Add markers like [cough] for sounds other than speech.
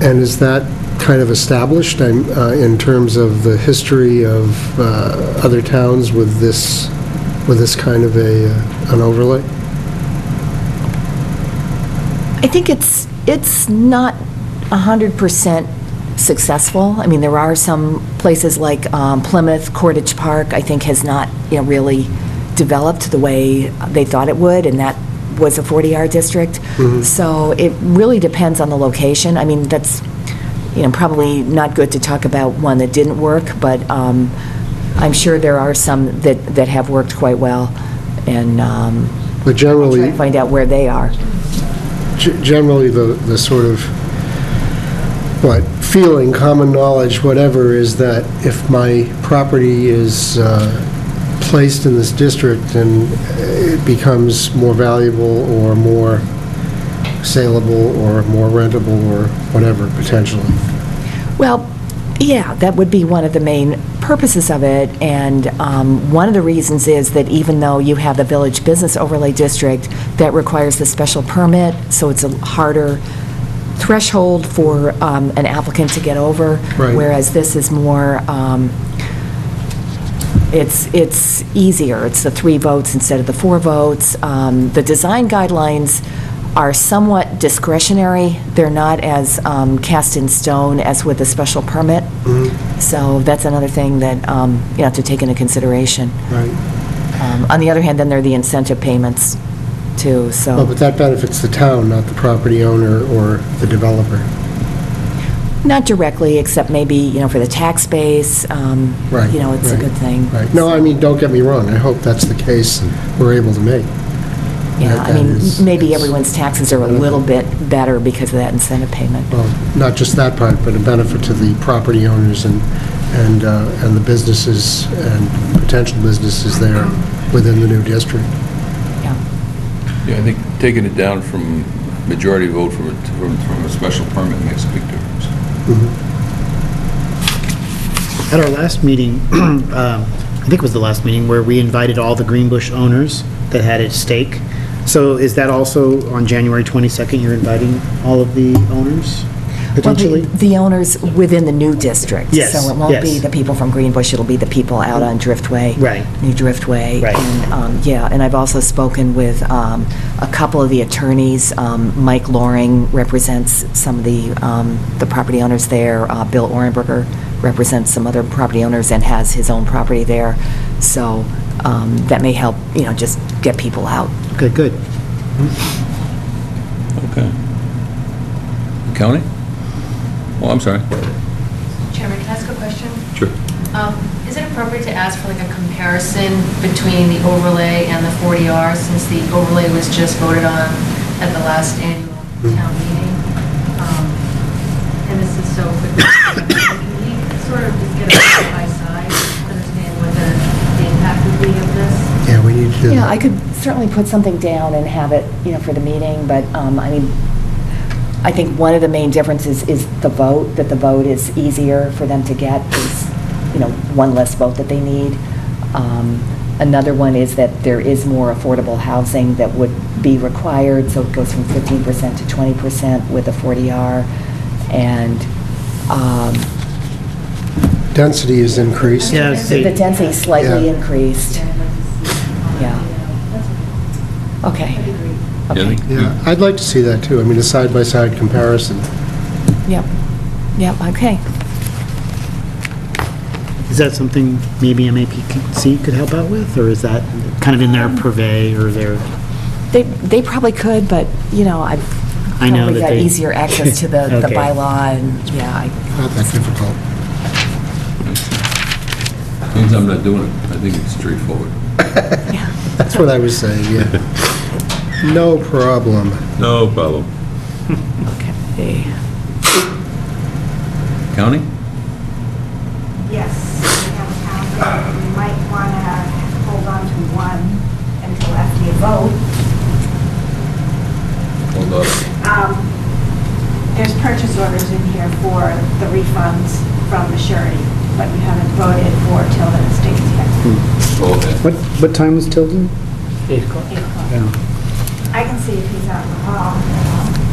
And is that kind of established I'm, uh, in terms of the history of uh, other towns with this, with this kind of a, uh, an overlay? I think it's, it's not 100% successful. I mean, there are some places like um, Plymouth, Cordage Park, I think has not, you know, really developed the way they thought it would, and that was a 40R district. So it really depends on the location. I mean, that's, you know, probably not good to talk about one that didn't work, but um, I'm sure there are some that, that have worked quite well, and um, But generally... try to find out where they are. G- generally, the, the sort of, what, feeling, common knowledge, whatever, is that if my property is uh, placed in this district and it becomes more valuable or more saleable or more rentable or whatever, potentially. Well, yeah, that would be one of the main purposes of it, and um, one of the reasons is that even though you have the Village Business Overlay District, that requires the special permit, so it's a harder threshold for um, an applicant to get over. Right. Whereas this is more, um, it's, it's easier. It's the three votes instead of the four votes. Um, The design guidelines are somewhat discretionary. They're not as um, cast in stone as with a special permit. Mm-hmm. So that's another thing that um, you have to take into consideration. Right. Um, On the other hand, then there are the incentive payments, too, so. But that benefits the town, not the property owner or the developer. Not directly, except maybe, you know, for the tax base, um, Right. you know, it's a right, good thing. Right. No, I mean, don't get me wrong. I hope that's the case and we're able to make. Yeah, I That- that mean, is- is- maybe everyone's taxes are a little bit better because of that incentive payment. Well, not just that part, but a benefit to the property owners and, and, uh, and the businesses and potential businesses there within the new district. Yeah, Yeah, I think taking it down from majority vote from, a- from from a special permit makes a big difference. At our last meeting, [clears throat] um, I think it was the last meeting, where we invited all the Greenbush owners that had at stake. So is that also on January 22nd, you're inviting all of the owners Well, the- potentially? The owners within the new district. Yes, So it won't be yes. the people from Greenbush, it'll be the people out on Driftway. Right. New Driftway. Right. And, um, yeah, and I've also spoken with um, a couple of the attorneys. Um, Mike Loring represents some of the, um, the property owners there. Uh, Bill Orenberger represents some other property owners and has his own property there. So um, that may help, you know, just get people out. Okay, good. Okay. County? Oh, I'm sorry. Chairman, can I ask a question? Sure. Um, Is it appropriate to ask for like a comparison between the overlay and the 40R, since the overlay was just voted on at the last annual town meeting? Um, And this is so quickly, can we sort of just get a side by side, understand what the the impact would be of this? Yeah, we need to. Yeah, I could certainly put something down and have it, you know, for the meeting, but, um, I mean, I think one of the main differences is the vote, that the vote is easier for them to get, is, you know, one less vote that they need. Um, Another one is that there is more affordable housing that would be required, so it goes from 15% to 20% with a 40R, and, um, Density is increased. Yeah, I the see. density slightly Yeah. increased. Yeah, I'd like to see it on, Yeah. you know, that's okay. Okay. Yeah, I That'd be great. Okay. think- Yeah, I'd like to see that too. I mean, a side-by-side comparison. Yep, yep, okay. Is that something maybe MAPC could help out with, or is that kind of in their purvey or their? They, they probably could, but, you know, I've I know probably that got they- easier access to the, the [laughs] Okay. bylaw, and, yeah, I- Not that difficult. Means I'm not doing it. I think it's straightforward. That's what I was saying, yeah. No problem. No problem. okay. County? Yes, we have a calendar. You might want to hold on to one until after you vote. Hold up. Um, There's purchase orders in here for the refunds from the surety, but you haven't voted for till the state's here. Okay. What, what time was Tilden? I can see if he's out in the hall.